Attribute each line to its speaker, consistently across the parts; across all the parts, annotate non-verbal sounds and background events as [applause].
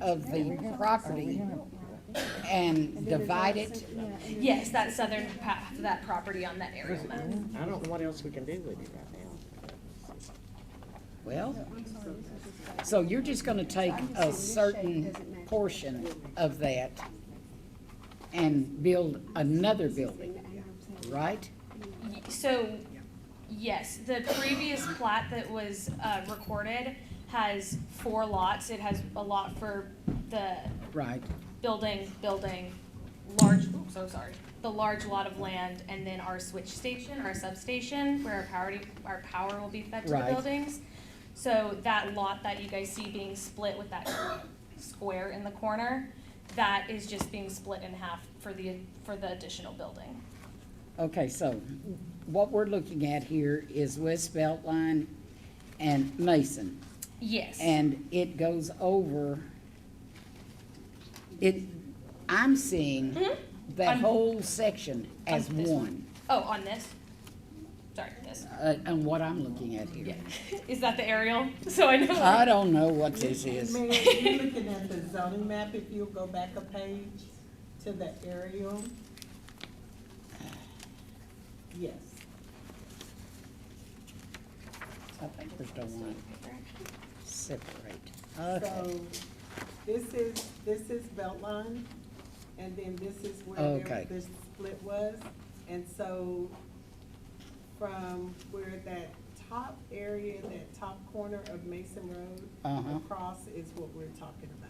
Speaker 1: of the property and divide it?
Speaker 2: Yes, that southern half of that property on that aerial map.
Speaker 3: I don't know what else we can do with it right now.
Speaker 1: Well, so you're just gonna take a certain portion of that and build another building, right?
Speaker 2: Y- So, yes, the previous plat that was uh, recorded has four lots. It has a lot for the
Speaker 1: Right,
Speaker 2: building, building, large, oops, I'm sorry, the large lot of land, and then our switch station, our substation, where our power, our power will be fed to the
Speaker 1: Right.
Speaker 2: buildings. So that lot that you guys see being split with that square in the corner, that is just being split in half for the, for the additional building.
Speaker 1: okay, so what we're looking at here is West Beltline and Mason.
Speaker 2: Yes.
Speaker 1: And it goes over, it, I'm seeing that
Speaker 2: Mm-hmm. I'm-
Speaker 1: whole section as
Speaker 2: this one.
Speaker 1: one,
Speaker 2: Oh, on this? Sorry, this.
Speaker 1: uh, and what I'm looking at here.
Speaker 2: Yeah. [laughs] Is that the aerial? [laughs] So I know.
Speaker 1: I don't know what this is.
Speaker 4: Mayor, you're looking at the zoning map, if you'll go back a page to the aerial. Yes.
Speaker 1: I think there's the one separate. Okay,
Speaker 4: So, this is, this is Beltline, and then this is where
Speaker 1: Okay.
Speaker 4: there- the split was. And so, from where that top area, that top corner of Mason Road,
Speaker 1: Uh-huh.
Speaker 4: across is what we're talking about.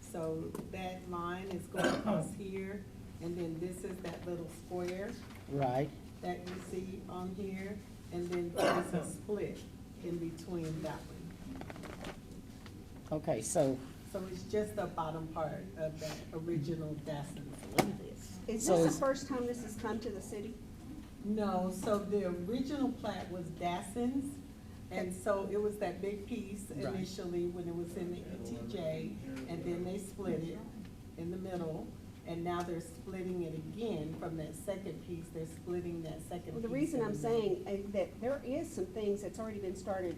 Speaker 4: So that line is going across
Speaker 1: [coughs]
Speaker 4: here, and then this is that little square
Speaker 1: right,
Speaker 4: that you see on here, and then there's a split in between that one.
Speaker 1: okay, so,
Speaker 4: So it's just the bottom part of that original Dassin.
Speaker 5: Is
Speaker 1: So
Speaker 5: this
Speaker 1: is-
Speaker 5: the first time this has come to the city?
Speaker 4: No, so the original plat was Dassin's, and so it was that big piece
Speaker 1: Right.
Speaker 4: initially when it was in the ETJ, and then they split it in the middle, and now they're splitting it again from that second piece, they're splitting that second
Speaker 5: Well,
Speaker 4: piece.
Speaker 5: the reason
Speaker 4: in
Speaker 5: I'm
Speaker 4: the middle.
Speaker 5: saying is that there is some things that's already been started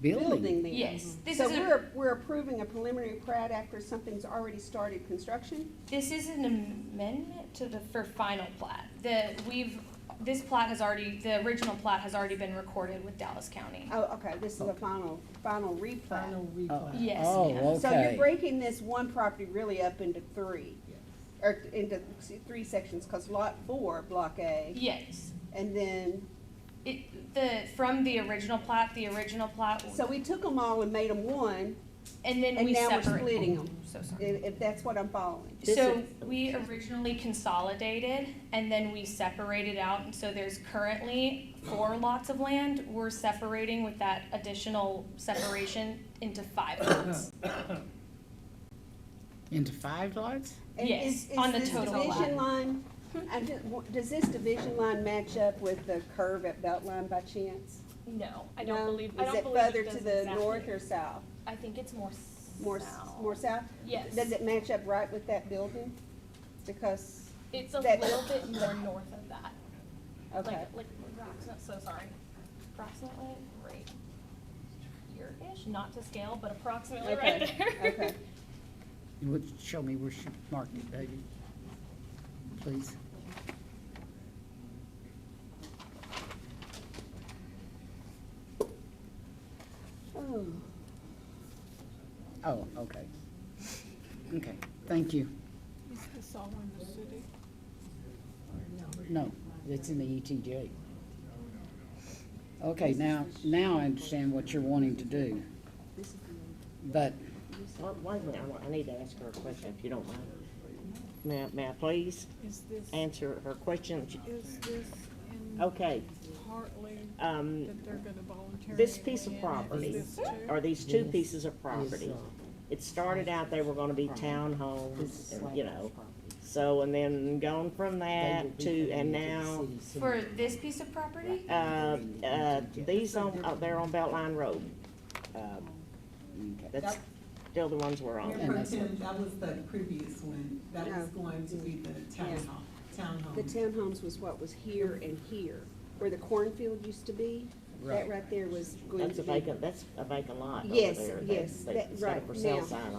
Speaker 1: building,
Speaker 5: building there.
Speaker 2: Yes, this
Speaker 5: So
Speaker 2: is a-
Speaker 5: we're, we're approving a preliminary plat after something's already started construction?
Speaker 2: This is an amendment to the, for final plat. The, we've, this plat has already, the original plat has already been recorded with Dallas County.
Speaker 5: Oh, okay, this is a final, final replat.
Speaker 4: Final replat.
Speaker 2: Yes, ma'am.
Speaker 1: oh,
Speaker 5: So you're
Speaker 1: okay,
Speaker 5: breaking this one property really up into three,
Speaker 4: Yes.
Speaker 5: or into three sections, because lot four, block A,
Speaker 2: Yes.
Speaker 5: and then,
Speaker 2: It, the, from the original plat, the original plat,
Speaker 5: so we took them all and made them one,
Speaker 2: and then
Speaker 5: and
Speaker 2: we
Speaker 5: now we're
Speaker 2: separate. Oh,
Speaker 5: splitting 'em.
Speaker 2: So sorry.
Speaker 5: if, if that's what I'm following.
Speaker 2: So we originally consolidated and then we separated out, and so there's currently four lots of land. We're separating with that additional separation into five lots.
Speaker 1: into five lots?
Speaker 5: And
Speaker 2: Yes,
Speaker 5: is- is
Speaker 2: on the
Speaker 5: this
Speaker 2: total
Speaker 5: division line, I'm just- w- does this division line match up with the curve at Beltline by chance?
Speaker 2: No, I
Speaker 5: No?
Speaker 2: don't believe, I don't believe
Speaker 5: Is it
Speaker 2: does
Speaker 5: further to the
Speaker 2: exactly.
Speaker 5: north or south?
Speaker 2: I think it's more
Speaker 5: More, s-
Speaker 2: south.
Speaker 5: more south?
Speaker 2: Yes.
Speaker 5: Does it match up right with that building? Because,
Speaker 2: It's a
Speaker 5: that-
Speaker 2: little bit
Speaker 5: [coughs]
Speaker 2: more north of that.
Speaker 5: okay,
Speaker 2: Like, like Roxanne, so sorry. Approximately right here-ish, not to scale, but approximately right
Speaker 5: Okay,
Speaker 2: there. [laughs]
Speaker 5: okay.
Speaker 1: You would show me where she marked it, baby, please.
Speaker 5: Oh,
Speaker 1: Oh, okay. Okay, thank you.
Speaker 6: Is this all in the city?
Speaker 1: No, it's in the ETJ. Okay, now, now I understand what you're wanting to do. But,
Speaker 3: Well, Wait a minute, I wa- I need to ask her a question, if you don't mind. May, I- may I please
Speaker 6: Is this,
Speaker 3: answer her question?
Speaker 6: is this in
Speaker 3: Okay,
Speaker 6: partly
Speaker 3: um,
Speaker 6: that they're gonna volunteer?
Speaker 3: this piece of
Speaker 6: land?
Speaker 3: property,
Speaker 6: Is this too?
Speaker 3: are these two pieces of property? It started out they were gonna be townhomes, and, you know, so, and then gone from that to, and now,
Speaker 2: For this piece of property?
Speaker 3: uh, uh, these on, uh, they're on Beltline Road. Uh,
Speaker 1: okay.
Speaker 3: That's still the ones we're on.
Speaker 4: Mayor Pro Tem, that was the previous one, that
Speaker 5: Yeah.
Speaker 4: was going to be the townhome,
Speaker 5: Oh. the
Speaker 4: townhome.
Speaker 5: townhomes was what was here and here, where the cornfield used to be. That
Speaker 1: Right.
Speaker 5: right there was going
Speaker 3: That's
Speaker 5: to
Speaker 3: a
Speaker 5: be.
Speaker 3: vacant, that's a vacant lot over
Speaker 5: Yes,
Speaker 3: there.
Speaker 5: yes,
Speaker 3: They-
Speaker 5: that-
Speaker 3: they set up
Speaker 5: right,
Speaker 3: For sale
Speaker 5: now.
Speaker 3: sign